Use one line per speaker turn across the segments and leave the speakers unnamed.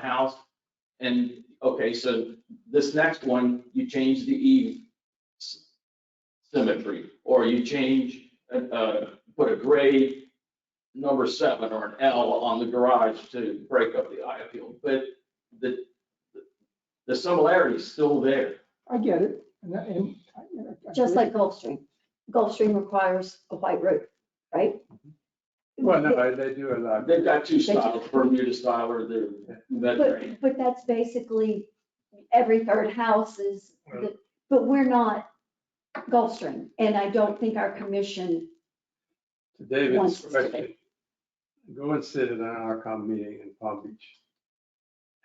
the house. And, okay, so this next one, you change the eve s- symmetry, or you change, uh, uh, put a grade number seven or an L on the garage to break up the eye appeal, but the, the similarity's still there.
I get it. and that- and I- I- I
Just
agree.
like Gulfstream. Gulfstream requires a white roof, right?
Well, no, they do allow.
They've got two styles, Bermuda style or the Mediterranean.
But, but that's basically every third house is, the- but we're not Gulfstream. And I don't think our commission,
To David's
Once, okay.
question, go and sit at an ARCOM meeting in Palm Beach.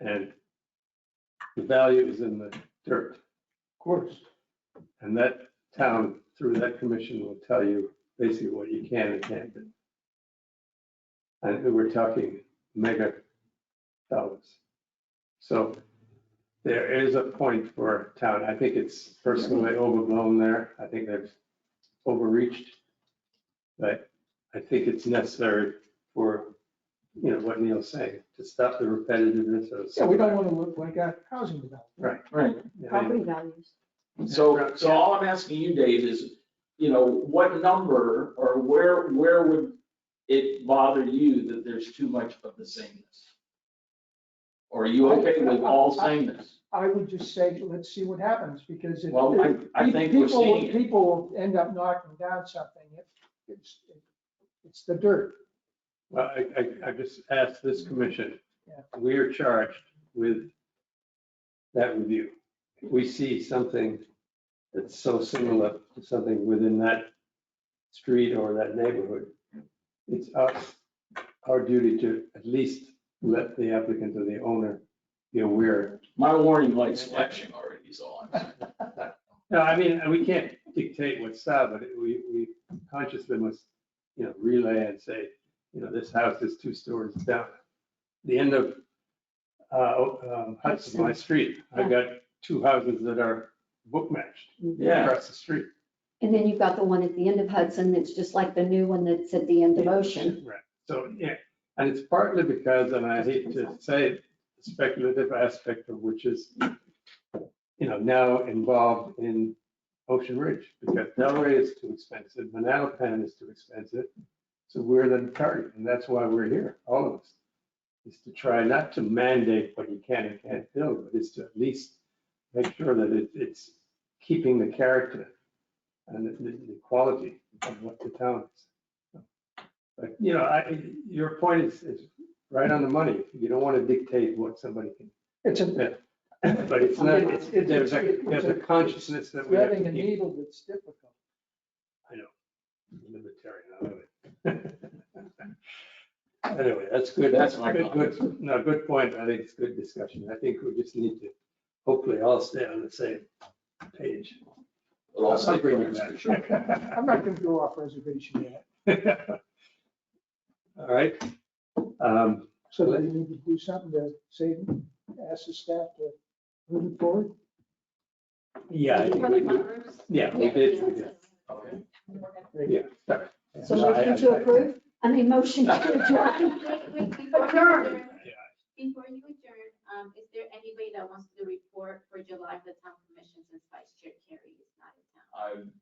And the value is in the dirt.
Of course.
And that town, through that commission, will tell you basically what you can and can't do. And we're talking mega dollars. So there is a point for a town. I think it's personally overblown there. I think they've overreached. But I think it's necessary for, you know, what Neil's saying, to stop the repetitiveness of.
Yeah, we don't want to look like a housing development.
Right.
property values.
So, so all I'm asking you, Dave, is, you know, what number or where, where would it bother you that there's too much of the sameness? Or are you okay with all sameness?
I would just say, let's see what happens because if.
Well, I, I think we're
people-
seeing it.
People will end up knocking down something. if It's, it's the dirt.
Well, I, I, I just asked this commission,
Yeah.
we are charged with that review. If we see something that's so similar to something within that street or that neighborhood, it's our, our duty to at least let the applicant or the owner be aware.
My warning light's flashing already is all I'm saying.
No, I mean, we can't dictate what's style, but we, we consciously must, you know, relay and say, you know, this house is two stories down. The end of uh, um, Hudson, my street, I've got two houses that are book matched
Yeah,
across the street.
And then you've got the one at the end of Hudson that's just like the new one that's at the end of Ocean.
Right, so, yeah, and it's partly because, and I hate to say it, speculative aspect of which is, you know, now involved in Ocean Ridge, because Delray is too expensive, Manalapan is too expensive. So we're the target, and that's why we're here, all of us, is to try not to mandate what you can and can't build, but is to at least make sure that it, it's keeping the character and the, the the quality of what the town is. But, you know, I, your point is, is right on the money. You don't want to dictate what somebody can,
It's a,
but it's not, it's, there's a, there's a consciousness that we have
threading
to
a
keep
needle that's difficult.
libertarian out of it. Anyway, that's good.
That's my
Good,
comment.
good- no, good point. I think it's good discussion. I think we just need to hopefully all stay on the same page.
but all
I'll bring you
sameness for sure.
back.
I'm not going to go off reservation yet.
All right. Um,
So do we need to do something to save, them? ask the staff to move it forward?
Yeah. I think we do. Yeah, we did. we did.
Okay.
Yeah, sorry.
So
No, I-
motion
I-
to
I-
approve? I mean, motion to adjourn.
Adjourn.
Yeah.
Before you adjourn, um, is there anybody that wants to do a report for July for the town commission since Vice Chair Carrie is not in town?
I'm-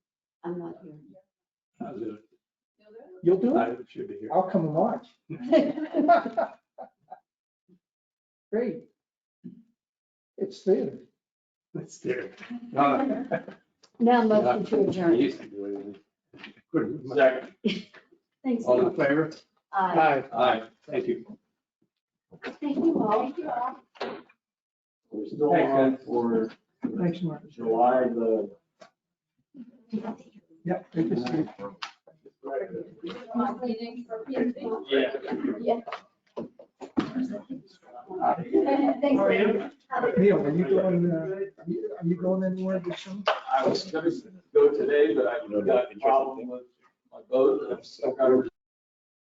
I'm not here.
I'll do
You'll do
Mm-hmm.
it.
it?
I should be here.
Oh.
I'll come and watch. Great. It's theater.
It's there. Uh,
Now motion to
I
adjourn.
used to do it. Couldn't.
Zach,
Thanks.
All in favor?
Aye.
Aye.
Thank you.
Thank you all. Thank you all.
we're still
Thanks,
on
guys.
for
Thanks, Mark.
July the.
Yep. good to see you.
Yeah.
Thanks, Larry.
Neil, are you going, uh, are you going anywhere this summer?
I was gonna go today, but I've got a problem with my boat. and I've still got to